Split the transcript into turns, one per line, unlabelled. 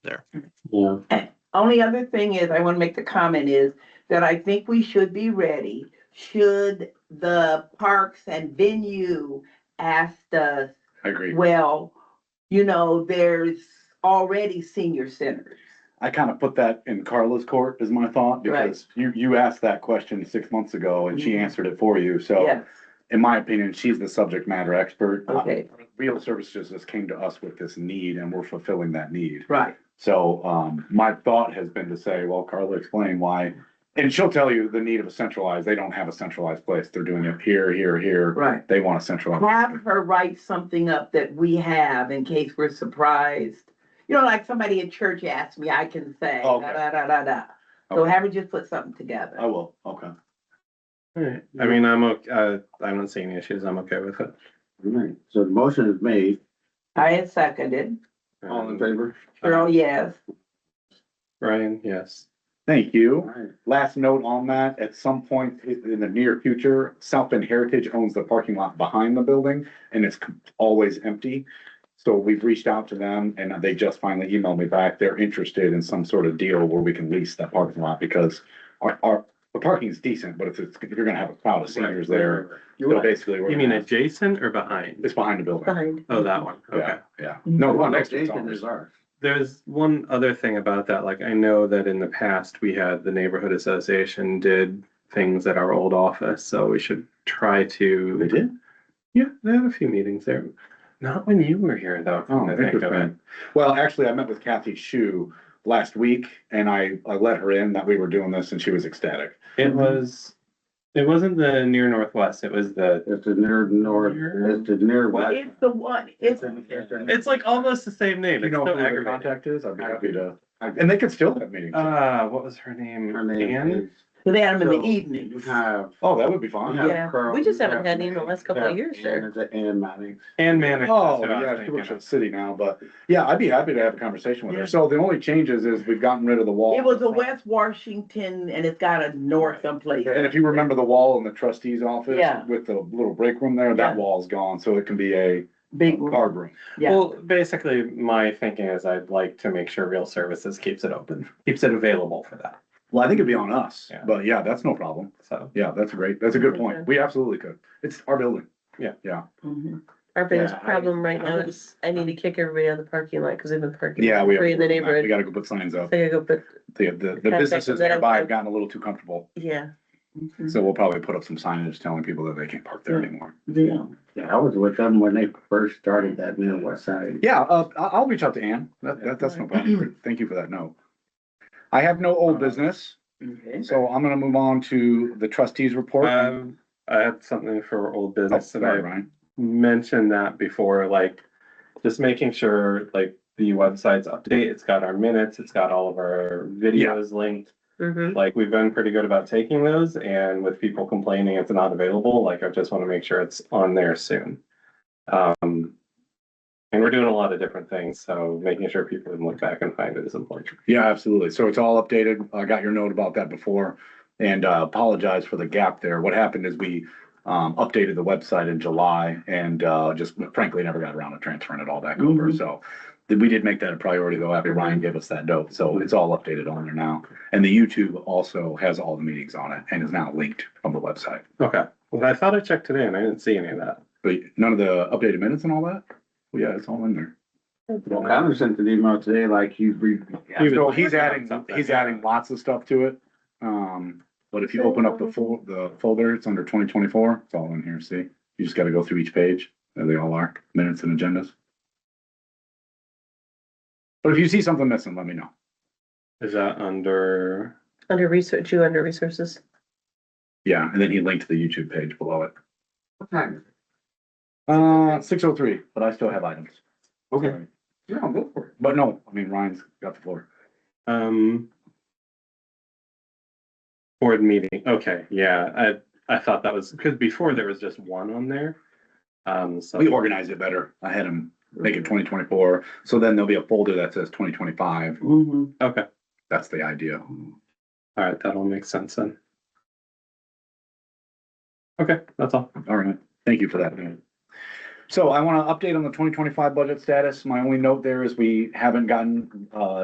there.
Yeah.
Only other thing is, I want to make the comment is that I think we should be ready, should the parks and venue ask us,
I agree.
well, you know, there's already senior centers.
I kind of put that in Carla's court is my thought
Right.
because you, you asked that question six months ago and she
Mhm.
answered it for you. So
Yes,
in my opinion, she's the subject matter expert. Uh,
Okay.
Real services just came to us with this need and we're fulfilling that need.
right.
So, um, my thought has been to say, well, Carla, explain why. And she'll tell you the need of a centralized, they don't have a centralized place. They're doing it here, here, here.
Right.
They want a centralized.
Have her write something up that we have in case we're surprised. You know, like somebody at church asked me, I can say, da,
Oh, Okay.
da, da, da, da. So have her just put something together.
I will, okay.
Alright, I mean, I'm, ok- uh, I'm not seeing issues, I'm okay with it.
Alright, so the motion is made,
I had seconded.
all in
Um,
favor?
Earl, yes.
Ryan, yes.
Thank you.
Alright,
Last note on that, at some point i- in the near future, South Bend Heritage owns the parking lot behind the building and it's com- always empty. So we've reached out to them and they just finally emailed me back. They're interested in some sort of deal where we can lease that parking lot because our, our, the parking's decent, but if it's, if you're gonna have a crowd of seniors there,
You
so basically. we're
you mean
gonna-
adjacent or behind?
It's behind the building.
Behind.
Oh, that one, okay.
Yeah, yeah. No,
Well,
one next to it's
Jason
ours.
is ours.
There's one other thing about that, like, I know that in the past, we had the neighborhood association did things at our old office, so we should try to.
They did?
Yeah, they had a few meetings there, not when you were here, though.
Oh,
come to think of it.
interesting. Well, actually, I met with Kathy Shu last week and I, I let her in that we were doing this and she was ecstatic.
It was, it wasn't the near northwest, it was the,
It's the near north, it's the near west.
It's the one, it's,
it's like almost the same name,
You
it's
know
so
who their
aggravating.
contact is? I'd be happy to, and they could still have meetings.
Uh, what was her name?
Her name
Anne?
is.
they had them in
So,
the evening.
You have.
Oh, that would be
you
fun.
have
Yeah,
Carl,
we just
you
haven't
have
had any in the
Nick,
last couple
you
of
have
years there.
Ann, it's Ann Mannix.
Anne Manick.
Oh, yeah, she works at the city now, but yeah, I'd be happy to have a conversation with her. So the only changes is we've gotten rid of the wall.
It was a West Washington and it's got a north someplace.
And if you remember the wall in the trustee's office
Yeah.
with the little break room there, that
Yeah.
wall's gone, so it can be a
Big,
card room.
yeah.
Well, basically, my thinking is I'd like to make sure Real Services keeps it open, keeps it available for that,
Well, I think it'd be on us,
Yeah.
but yeah, that's no problem.
so.
Yeah, that's great. That's a good point.
Okay.
We absolutely could. It's our building.
Mhm.
Our biggest
Yeah, I-
problem right now
I-
is I need to kick everybody out of the parking lot because they've been parking.
Yeah, we have.
Free in the
We
neighborhood.
gotta go put signs
So I
up.
gotta go, but
The, the, the
Contact
businesses
them.
nearby have gotten a little too comfortable,
yeah, Mm-hmm.
Mhm.
so we'll probably put up some signage telling people that they can't park there
Yeah.
anymore.
Yeah.
Yeah, I was with them when they first started that near west side.
Yeah, uh, I, I'll reach out to Ann. That, that, that's no problem. Thank you for that note. I have no
Uh,
old business,
Okay.
so I'm gonna move on to the trustees report.
Um, I had something for old
Oh,
business that I
Sorry, Ryan.
mentioned that before, like, just making sure, like, the website's update, it's got our minutes, it's got all of our videos linked.
mm-hmm.
Like, we've been pretty good about taking those, and with people complaining it's not available, like, I just wanna make sure it's on there soon. Um, and we're doing a lot of different things, so making sure people can look back and find it is important.
Yeah, absolutely. So it's all updated. I got your note about that before and uh, apologize for the gap there. What happened is we um, updated the website in July and uh, just frankly never got around to transferring it all back over.
Mhm.
So th- we did make that a priority though after Ryan gave us that note. So it's all updated on there now. And the YouTube also has all the meetings on it and is now linked from the website.
Okay, well, I thought I checked today and I didn't see any of that.
But none of the updated minutes and all that? Well, yeah, it's all in there.
Well, Connor sent an email today like he's re.
He was
So
working
he's
on
adding,
something.
he's adding lots of stuff to it. Um, but if you open up the full, the folder, it's under twenty twenty-four, it's all in here, see? You just gotta go through each page, there they all are, minutes and agendas. But if you see something missing, let me know.
Is that under,
Under research, you under resources.
Yeah, and then he linked the YouTube page below it.
Okay.
Uh, six oh three, but I still have items. Sorry.
Yeah, go for it.
But no, I mean, Ryan's got the floor.
um, board meeting? Okay, yeah, I, I thought that was, because before there was just one on there. Um, so.
We organized it better. I had him make it twenty twenty-four, so then there'll be a folder that says twenty twenty-five.
Mhm.
Okay,
That's the idea.
all right, that'll make sense then. Okay, that's all.
All right, thank you for that. Dan. So I want to update on the twenty twenty-five budget status. My only note there is we haven't gotten, uh,